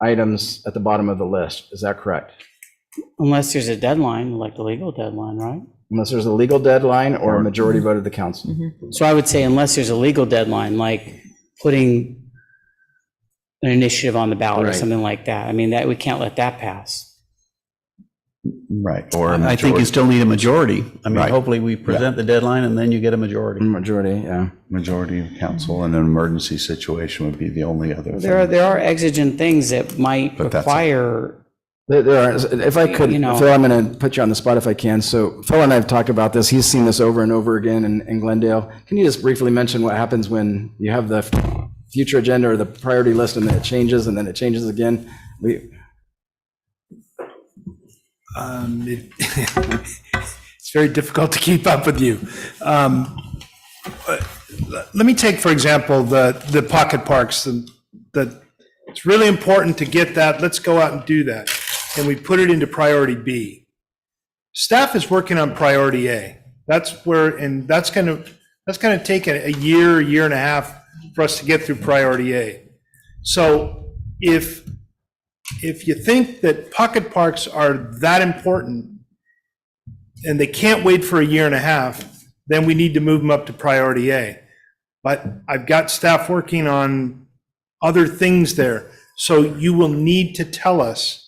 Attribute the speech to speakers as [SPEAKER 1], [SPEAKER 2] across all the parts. [SPEAKER 1] items at the bottom of the list. Is that correct?
[SPEAKER 2] Unless there's a deadline, like the legal deadline, right?
[SPEAKER 1] Unless there's a legal deadline or a majority vote of the council.
[SPEAKER 2] So I would say unless there's a legal deadline, like putting an initiative on the ballot or
[SPEAKER 1] Right.
[SPEAKER 2] something like that. I mean, that, we can't let that pass.
[SPEAKER 3] Right.
[SPEAKER 4] Or a
[SPEAKER 3] I think you
[SPEAKER 4] majority,
[SPEAKER 3] still need a majority. I mean,
[SPEAKER 4] Right.
[SPEAKER 3] hopefully we present the deadline and then you get a majority.
[SPEAKER 1] Majority, yeah.
[SPEAKER 4] majority of council in an emergency situation would be the only other
[SPEAKER 2] There are,
[SPEAKER 4] thing.
[SPEAKER 2] there are exigent things that might
[SPEAKER 4] But that's a-
[SPEAKER 2] require,
[SPEAKER 1] There- There are, if I could,
[SPEAKER 2] You know-
[SPEAKER 1] Phil, I'm going to put you on the spot if I can. So Phil and I have talked about this. He's seen this over and over again in, in Glendale. Can you just briefly mention what happens when you have the future agenda or the priority list and then it changes and then it changes again? We,
[SPEAKER 5] Um, it- It's very difficult to keep up with you. Um, but le- Let me take, for example, the, the pocket parks, and that, it's really important to get that, let's go out and do that. And we put it into priority B. Staff is working on priority A. That's where, and that's going to, that's going to take a a year, a year and a half for us to get through priority A. So if if you think that pocket parks are that important and they can't wait for a year and a half, then we need to move them up to priority A. But I've got staff working on other things there. So you will need to tell us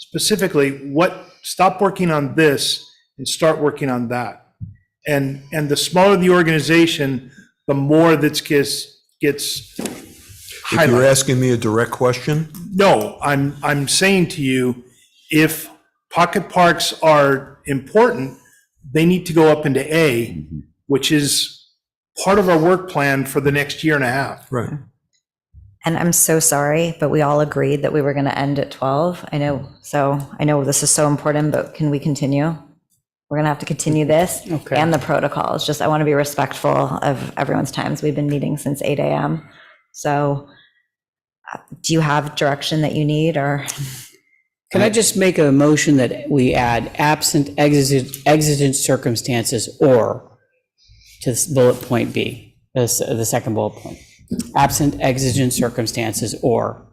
[SPEAKER 5] specifically what, stop working on this and start working on that. And, and the smaller the organization, the more that's gets, gets
[SPEAKER 6] If
[SPEAKER 5] highlighted.
[SPEAKER 6] you're asking me a direct question,
[SPEAKER 5] No, I'm, I'm saying to you, if pocket parks are important, they need to go up into A, which is part of our work plan for the next year and a half.
[SPEAKER 6] right,
[SPEAKER 7] And I'm so sorry, but we all agreed that we were going to end at 12. I know, so I know this is so important, but can we continue? We're going to have to continue this
[SPEAKER 2] Okay.
[SPEAKER 7] and the protocols. Just, I want to be respectful of everyone's times. We've been meeting since 8 AM. So uh, do you have direction that you need or?
[SPEAKER 2] can I just make a motion that we add absent exigent, exigent circumstances or to this bullet point B, the, s- the second bullet point, absent exigent circumstances or.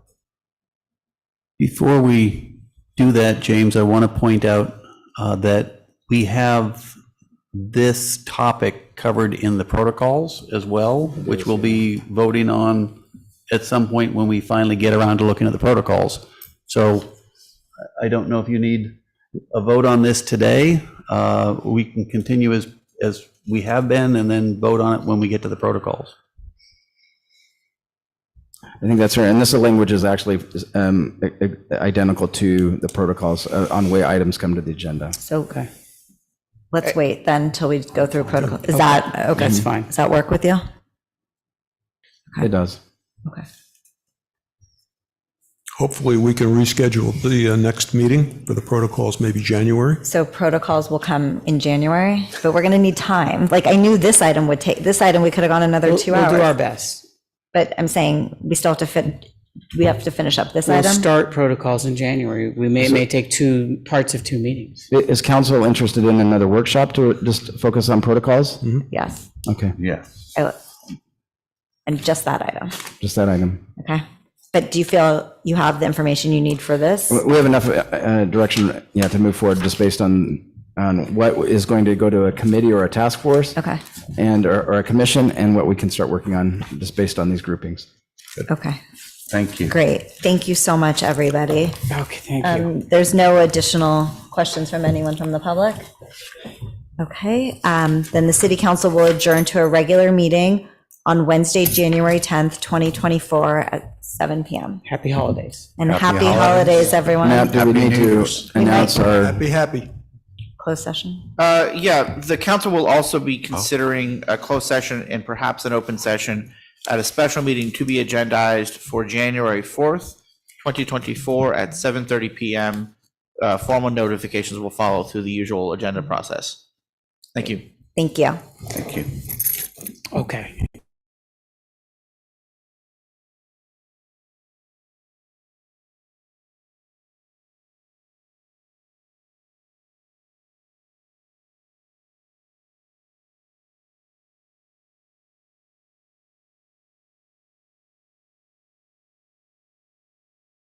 [SPEAKER 3] Before we do that, James, I want to point out uh, that we have this topic covered in the protocols as well, which we'll be voting on at some point when we finally get around to looking at the protocols. So I I don't know if you need a vote on this today. Uh, We can continue as, as we have been and then vote on it when we get to the protocols.
[SPEAKER 1] I think that's right. And this language is actually um, i- i- identical to the protocols uh, on way items come to the agenda.
[SPEAKER 7] So let's wait then till we go through protocol. Is that, okay?
[SPEAKER 2] That's fine.
[SPEAKER 7] Does that work with you?
[SPEAKER 1] It does.
[SPEAKER 7] Okay.
[SPEAKER 6] hopefully we can reschedule the uh, next meeting for the protocols, maybe January.
[SPEAKER 7] So protocols will come in January, but we're going to need time. Like I knew this item would take, this item, we could have gone another
[SPEAKER 2] We'll-
[SPEAKER 7] two
[SPEAKER 2] We'll do our
[SPEAKER 7] hours.
[SPEAKER 2] best.
[SPEAKER 7] But I'm saying we still have to fit, we have to finish up this
[SPEAKER 2] We'll
[SPEAKER 7] item.
[SPEAKER 2] start protocols in January. We may, may take two, parts of two meetings.
[SPEAKER 1] I- Is council interested in another workshop to just focus on protocols?
[SPEAKER 7] Yes.
[SPEAKER 1] Okay,
[SPEAKER 4] Yeah.
[SPEAKER 7] I- And just that item.
[SPEAKER 1] just that item.
[SPEAKER 7] Okay. But do you feel you have the information you need for this?
[SPEAKER 1] We have enough uh, uh, direction, yeah, to move forward just based on, on what is going to go to a committee or a task force
[SPEAKER 7] Okay.
[SPEAKER 1] and, or or a commission and what we can start working on just based on these groupings.
[SPEAKER 7] Okay.
[SPEAKER 4] Thank you.
[SPEAKER 7] Great. Thank you so much, everybody.
[SPEAKER 2] Okay, thank you.
[SPEAKER 7] Um, There's no additional questions from anyone from the public? Okay, um, then the city council will adjourn to a regular meeting on Wednesday, January 10th, 2024 at 7 PM.
[SPEAKER 2] Happy holidays.
[SPEAKER 7] And
[SPEAKER 4] Happy
[SPEAKER 7] happy holidays,
[SPEAKER 1] Now,
[SPEAKER 7] everyone.
[SPEAKER 1] do we
[SPEAKER 4] Happy
[SPEAKER 1] need
[SPEAKER 4] New
[SPEAKER 1] to
[SPEAKER 4] Year's.
[SPEAKER 1] announce our,
[SPEAKER 6] Happy, happy.
[SPEAKER 7] Closed session.
[SPEAKER 8] Uh, yeah, the council will also be considering a closed session and perhaps an open session at a special meeting to be agendized for January 4th, 2024 at 7:30 PM. Uh, Formal notifications will follow through the usual agenda process. Thank you.
[SPEAKER 7] Thank you.
[SPEAKER 4] Thank you.
[SPEAKER 2] Okay.